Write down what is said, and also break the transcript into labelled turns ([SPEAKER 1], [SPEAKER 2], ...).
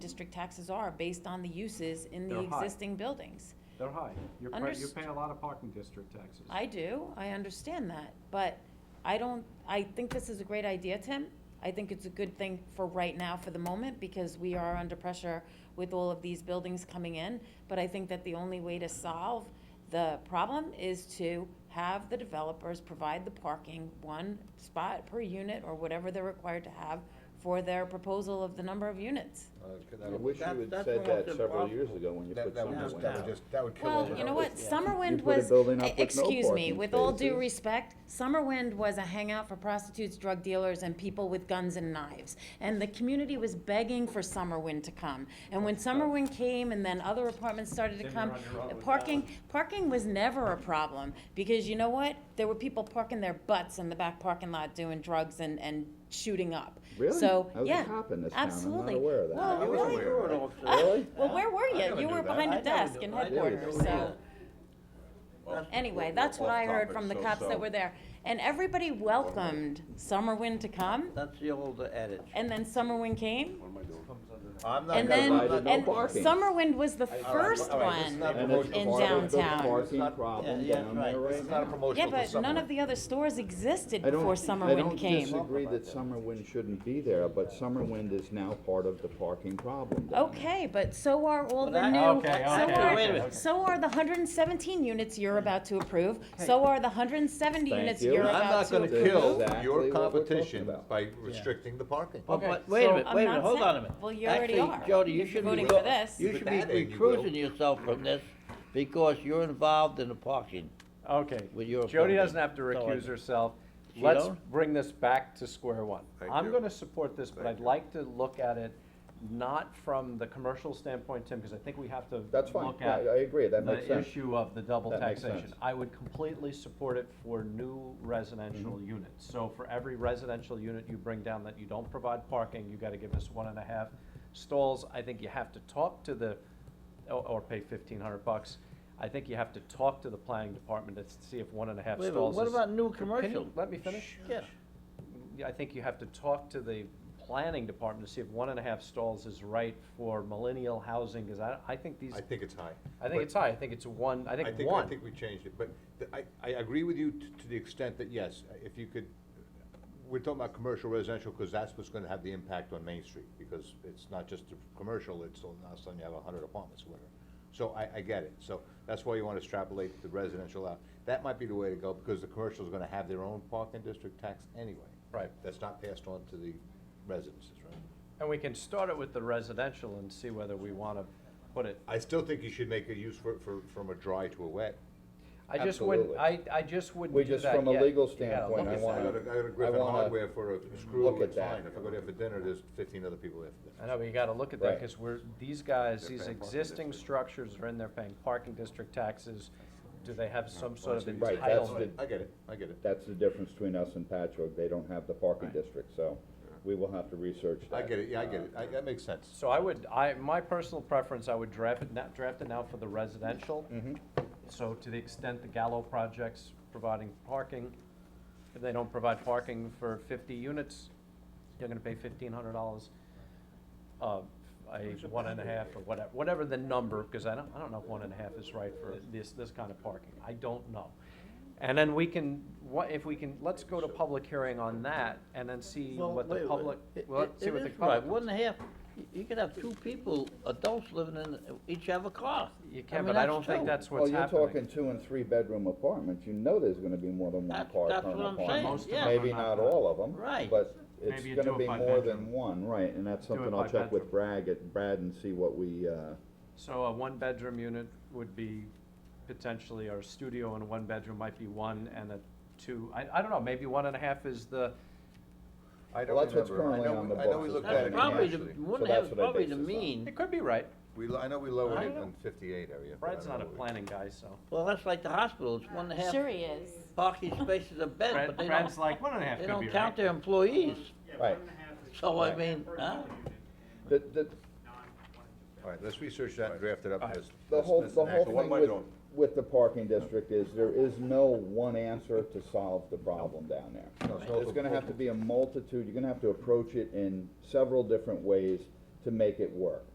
[SPEAKER 1] district taxes are based on the uses in the
[SPEAKER 2] They're high.
[SPEAKER 1] existing buildings.
[SPEAKER 2] They're high. You're, pa- you're
[SPEAKER 1] Underst-
[SPEAKER 2] paying a lot of parking district taxes.
[SPEAKER 1] I do, I understand that, but I don't, I think this is a great idea, Tim. I think it's a good thing for right now, for the moment, because we are under pressure with all of these buildings coming in. But I think that the only way to solve the problem is to have the developers provide the parking, one spot per unit or whatever they're required to have for their proposal of the number of units.
[SPEAKER 3] I wish you
[SPEAKER 4] That-
[SPEAKER 3] had
[SPEAKER 4] that's
[SPEAKER 3] said that
[SPEAKER 4] almost
[SPEAKER 3] several
[SPEAKER 4] impossible.
[SPEAKER 3] years ago when you
[SPEAKER 5] That,
[SPEAKER 3] put
[SPEAKER 5] Uh, that would
[SPEAKER 3] something
[SPEAKER 4] No,
[SPEAKER 5] just,
[SPEAKER 3] in.
[SPEAKER 5] that would just, that would kill
[SPEAKER 1] Well,
[SPEAKER 5] all
[SPEAKER 1] you know
[SPEAKER 5] the-
[SPEAKER 1] what, Summerwind
[SPEAKER 3] You put a
[SPEAKER 1] was, e,
[SPEAKER 3] building up with no
[SPEAKER 1] excuse me,
[SPEAKER 3] parking
[SPEAKER 1] with all due
[SPEAKER 3] spaces.
[SPEAKER 1] respect, Summerwind was a hangout for prostitutes, drug dealers, and people with guns and knives. And the community was begging for Summerwind to come. And when Summerwind came and then other apartments started to
[SPEAKER 2] Then
[SPEAKER 1] come,
[SPEAKER 2] you're on your own with that
[SPEAKER 1] parking, parking was never a problem. Because you know what? There were people parking their butts in the back parking lot doing drugs and, and shooting up.
[SPEAKER 3] Really?
[SPEAKER 1] So,
[SPEAKER 3] That was a
[SPEAKER 1] yeah,
[SPEAKER 3] cop in this town. I'm not
[SPEAKER 1] absolutely.
[SPEAKER 3] aware of that.
[SPEAKER 1] Well,
[SPEAKER 3] I
[SPEAKER 4] You
[SPEAKER 3] wasn't
[SPEAKER 1] really?
[SPEAKER 3] aware.
[SPEAKER 4] were an
[SPEAKER 1] Ah,
[SPEAKER 4] officer.
[SPEAKER 1] Well, where were
[SPEAKER 5] I
[SPEAKER 1] you?
[SPEAKER 5] never
[SPEAKER 1] You
[SPEAKER 5] knew
[SPEAKER 1] were
[SPEAKER 5] that.
[SPEAKER 1] behind a
[SPEAKER 4] I never
[SPEAKER 1] desk
[SPEAKER 4] knew-
[SPEAKER 1] in
[SPEAKER 4] I never
[SPEAKER 1] headquarters,
[SPEAKER 4] knew
[SPEAKER 1] so.
[SPEAKER 4] that.
[SPEAKER 5] Well,
[SPEAKER 1] Anyway,
[SPEAKER 5] well,
[SPEAKER 1] that's what
[SPEAKER 5] off
[SPEAKER 1] I heard
[SPEAKER 5] topic,
[SPEAKER 1] from the
[SPEAKER 5] so-
[SPEAKER 1] cops
[SPEAKER 5] so-
[SPEAKER 1] that were there. And everybody welcomed Summerwind to come,
[SPEAKER 4] That's the old adage.
[SPEAKER 1] and then Summerwind came.
[SPEAKER 5] I'm not
[SPEAKER 1] And
[SPEAKER 5] gonna
[SPEAKER 1] then,
[SPEAKER 5] lie to
[SPEAKER 3] provided no
[SPEAKER 1] and
[SPEAKER 5] nobody.
[SPEAKER 3] parking.
[SPEAKER 1] Summerwind was the
[SPEAKER 5] All right,
[SPEAKER 1] first
[SPEAKER 5] all right, this is
[SPEAKER 1] one.
[SPEAKER 5] not
[SPEAKER 3] And
[SPEAKER 5] promotion
[SPEAKER 3] it's
[SPEAKER 5] of
[SPEAKER 1] in
[SPEAKER 3] part of the
[SPEAKER 1] downtown.
[SPEAKER 3] Parking problem
[SPEAKER 4] Yeah, yeah,
[SPEAKER 3] down
[SPEAKER 4] right.
[SPEAKER 3] there
[SPEAKER 5] This
[SPEAKER 3] right
[SPEAKER 5] is not a
[SPEAKER 3] now.
[SPEAKER 5] promotional
[SPEAKER 1] Yeah,
[SPEAKER 5] for
[SPEAKER 1] but none
[SPEAKER 5] someone.
[SPEAKER 1] of the other stores existed
[SPEAKER 3] I don't-
[SPEAKER 1] before Summerwind
[SPEAKER 3] I
[SPEAKER 1] came.
[SPEAKER 3] don't disagree that Summerwind shouldn't be there, but Summerwind is now part of the parking problem down there.
[SPEAKER 1] Okay, but so are all the
[SPEAKER 4] Well,
[SPEAKER 1] new,
[SPEAKER 4] that-
[SPEAKER 2] Okay,
[SPEAKER 1] so
[SPEAKER 2] okay,
[SPEAKER 4] wait a
[SPEAKER 1] are,
[SPEAKER 4] minute.
[SPEAKER 1] so are the hundred and seventeen units you're about to approve, so are the hundred and seventy
[SPEAKER 3] Thank
[SPEAKER 1] units
[SPEAKER 3] you.
[SPEAKER 1] you're
[SPEAKER 3] I'm
[SPEAKER 1] about to approve.
[SPEAKER 5] I'm not
[SPEAKER 3] not
[SPEAKER 5] gonna
[SPEAKER 3] approve.
[SPEAKER 5] kill
[SPEAKER 3] Exactly what
[SPEAKER 5] your
[SPEAKER 3] we're talking
[SPEAKER 5] competition
[SPEAKER 3] about.
[SPEAKER 5] by restricting the parking.
[SPEAKER 4] Well,
[SPEAKER 2] Okay,
[SPEAKER 4] but wait a
[SPEAKER 1] so
[SPEAKER 4] minute,
[SPEAKER 1] I'm
[SPEAKER 4] wait a
[SPEAKER 1] not
[SPEAKER 4] minute, hold
[SPEAKER 1] saying-
[SPEAKER 4] on a minute.
[SPEAKER 1] well, you already are.
[SPEAKER 4] Actually, Jody, you should be,
[SPEAKER 1] Voting for this.
[SPEAKER 4] you
[SPEAKER 5] But
[SPEAKER 4] should
[SPEAKER 5] that end
[SPEAKER 4] be
[SPEAKER 5] you
[SPEAKER 4] recruiting
[SPEAKER 5] will.
[SPEAKER 4] yourself from this because you're involved in the parking.
[SPEAKER 2] Oh, Okay,
[SPEAKER 4] With your
[SPEAKER 2] Jody
[SPEAKER 4] opponent.
[SPEAKER 2] doesn't have to
[SPEAKER 4] So I-
[SPEAKER 2] recuse herself.
[SPEAKER 4] She
[SPEAKER 2] Let's
[SPEAKER 4] don't?
[SPEAKER 2] bring this back to square one.
[SPEAKER 5] Thank
[SPEAKER 2] I'm
[SPEAKER 5] you.
[SPEAKER 2] gonna support this, but
[SPEAKER 5] Thank
[SPEAKER 2] I'd
[SPEAKER 5] you.
[SPEAKER 2] like to look at it not from the commercial standpoint, Tim, because I think we have to
[SPEAKER 3] That's fine.
[SPEAKER 2] look
[SPEAKER 3] I-
[SPEAKER 2] at
[SPEAKER 3] I agree. That makes
[SPEAKER 2] The
[SPEAKER 3] sense.
[SPEAKER 2] issue of the double
[SPEAKER 3] That makes
[SPEAKER 2] taxation.
[SPEAKER 3] sense.
[SPEAKER 2] I would completely support it for new residential units. So for every residential unit you bring down that you don't provide parking, you gotta give us one and a half stalls. I think you have to talk to the, or, or pay fifteen hundred bucks. I think you have to talk to the planning department to see if one and a half
[SPEAKER 4] Wait a minute,
[SPEAKER 2] stalls is.
[SPEAKER 4] what about
[SPEAKER 2] Can
[SPEAKER 4] new
[SPEAKER 2] you
[SPEAKER 4] commercial?
[SPEAKER 2] Let me finish.
[SPEAKER 4] Yeah.
[SPEAKER 2] Yeah, I think you have to talk to the planning department to see if one and a half stalls is right for millennial housing, cause I, I think these,
[SPEAKER 5] I think it's high.
[SPEAKER 2] I think it's high, I think it's one, I
[SPEAKER 5] But
[SPEAKER 2] think
[SPEAKER 5] I
[SPEAKER 2] one.
[SPEAKER 5] think we changed it, but th- I, I agree with you t- to the extent that, yes, if you could, we're talking about commercial residential, because that's what's gonna have the impact on Main Street, because it's not just the commercial, it's, all- now suddenly you have a hundred apartments, or whatever. So I, I get it, so that's why you wanna extrapolate the residential out. That might be the way to go, because the commercial's gonna have their own parking district tax anyway.
[SPEAKER 2] Right.
[SPEAKER 5] That's not passed on to the residences, right?
[SPEAKER 2] And we can start it with the residential and see whether we wanna put it,
[SPEAKER 5] I still think you should make a use for, for, from a dry to a wet.
[SPEAKER 2] I just wouldn't, I,
[SPEAKER 3] Absolutely.
[SPEAKER 2] I just wouldn't
[SPEAKER 3] We
[SPEAKER 2] do
[SPEAKER 3] just,
[SPEAKER 2] that
[SPEAKER 3] from a
[SPEAKER 2] yet.
[SPEAKER 3] legal
[SPEAKER 2] You gotta look
[SPEAKER 3] standpoint, I
[SPEAKER 2] at
[SPEAKER 3] wanna-
[SPEAKER 5] I go to, I go to Griffin
[SPEAKER 3] wanna
[SPEAKER 5] Hardware for a
[SPEAKER 3] look
[SPEAKER 5] screw,
[SPEAKER 3] at
[SPEAKER 5] it's
[SPEAKER 3] that.
[SPEAKER 5] fine, if I go there for dinner, there's fifteen other people there for dinner.
[SPEAKER 2] I know, but you gotta look at that,
[SPEAKER 3] Right.
[SPEAKER 2] cause we're, these guys,
[SPEAKER 5] They're
[SPEAKER 2] these
[SPEAKER 5] paying parking
[SPEAKER 2] existing
[SPEAKER 5] district.
[SPEAKER 2] structures are in there paying parking district taxes. Do they have some sort of
[SPEAKER 3] Right, that's
[SPEAKER 2] entitlement?
[SPEAKER 3] the-
[SPEAKER 5] I get it, I get it.
[SPEAKER 3] That's the difference between us and Patchogue. They don't have the parking district, so we will have to research that.
[SPEAKER 5] I get it, yeah, I get it, I, that makes sense.
[SPEAKER 2] So I would, I, my personal preference, I would draft it now, draft it now for the residential. So to the extent the Gallo project's providing parking, if they don't provide parking for fifty units, you're gonna pay fifteen hundred dollars. Uh, a one and a half or whatever, whatever the number, because I don't, I don't know if one and a half is right for this, this kind of parking, I don't know. And then we can, what, if we can, let's go to public hearing on that and then see
[SPEAKER 4] Well,
[SPEAKER 2] what
[SPEAKER 4] wait a
[SPEAKER 2] the
[SPEAKER 4] minute.
[SPEAKER 2] public,
[SPEAKER 4] It-
[SPEAKER 2] well,
[SPEAKER 4] it-
[SPEAKER 2] see
[SPEAKER 4] it
[SPEAKER 2] what the
[SPEAKER 4] is right.
[SPEAKER 2] public.
[SPEAKER 4] One and a half, you- you could have two people, adults living in, each have a car.
[SPEAKER 2] You
[SPEAKER 4] I
[SPEAKER 2] can,
[SPEAKER 4] mean,
[SPEAKER 2] but I don't
[SPEAKER 4] two.
[SPEAKER 2] think that's
[SPEAKER 3] Well,
[SPEAKER 2] what's
[SPEAKER 3] Oh, you're
[SPEAKER 2] happening.
[SPEAKER 3] talking two and three bedroom apartments, you know there's gonna be more than one
[SPEAKER 4] That's-
[SPEAKER 3] car per
[SPEAKER 4] that's
[SPEAKER 3] apartment.
[SPEAKER 4] what I'm saying, Most of yeah. them
[SPEAKER 3] Maybe
[SPEAKER 2] are not
[SPEAKER 3] not all of them.
[SPEAKER 4] Right.
[SPEAKER 3] But
[SPEAKER 2] Maybe you
[SPEAKER 3] it's
[SPEAKER 2] do
[SPEAKER 3] gonna
[SPEAKER 2] it
[SPEAKER 3] be
[SPEAKER 2] by
[SPEAKER 3] more
[SPEAKER 2] bedroom.
[SPEAKER 3] than one, right, and that's
[SPEAKER 2] Do it
[SPEAKER 3] something
[SPEAKER 2] by
[SPEAKER 3] I'll check with
[SPEAKER 2] bedroom.
[SPEAKER 3] Brad, at Brad and see what we, uh,
[SPEAKER 2] So a one-bedroom unit would be potentially, or a studio and a one-bedroom might be one and a two, I, I don't know, maybe one and a half is the,
[SPEAKER 5] I
[SPEAKER 3] Well, that's what's currently on the
[SPEAKER 5] I know
[SPEAKER 3] books
[SPEAKER 5] we
[SPEAKER 3] is
[SPEAKER 5] looked
[SPEAKER 3] what
[SPEAKER 5] at
[SPEAKER 3] it
[SPEAKER 4] That's
[SPEAKER 5] it
[SPEAKER 4] probably the,
[SPEAKER 5] initially.
[SPEAKER 4] one
[SPEAKER 3] So
[SPEAKER 4] and a half
[SPEAKER 3] that's
[SPEAKER 4] is
[SPEAKER 3] what I
[SPEAKER 4] probably
[SPEAKER 3] base
[SPEAKER 4] the
[SPEAKER 3] this on.
[SPEAKER 4] mean.
[SPEAKER 2] it could be right.
[SPEAKER 5] We, lo- I know we lowered
[SPEAKER 4] I
[SPEAKER 5] it
[SPEAKER 4] know.
[SPEAKER 5] in fifty-eight area. but I
[SPEAKER 2] Brad's
[SPEAKER 5] don't
[SPEAKER 2] not a
[SPEAKER 5] know.
[SPEAKER 2] planning guy, so.
[SPEAKER 4] Well, that's like the hospital, it's one and a half
[SPEAKER 1] Sure he is.
[SPEAKER 4] parking spaces a bed,
[SPEAKER 2] Brad,
[SPEAKER 4] but they
[SPEAKER 2] Brad's
[SPEAKER 4] don't,
[SPEAKER 2] like, one and a half
[SPEAKER 4] they
[SPEAKER 2] could be
[SPEAKER 4] don't count
[SPEAKER 2] right.
[SPEAKER 4] their employees.
[SPEAKER 3] right.
[SPEAKER 4] So I
[SPEAKER 3] Right.
[SPEAKER 4] mean, huh?
[SPEAKER 3] The, the,
[SPEAKER 5] All right, let's research that and draft it up as.
[SPEAKER 3] the
[SPEAKER 5] as-
[SPEAKER 3] whole,
[SPEAKER 5] as
[SPEAKER 3] the
[SPEAKER 5] an
[SPEAKER 3] whole
[SPEAKER 5] action. What
[SPEAKER 3] thing
[SPEAKER 5] am I
[SPEAKER 3] with,
[SPEAKER 5] doing?
[SPEAKER 3] with the parking district is, there is no one answer to solve the problem down there.
[SPEAKER 5] No, it's
[SPEAKER 3] It's
[SPEAKER 5] also-
[SPEAKER 3] gonna have to be a multitude, you're gonna have to approach it in several different ways to make it work.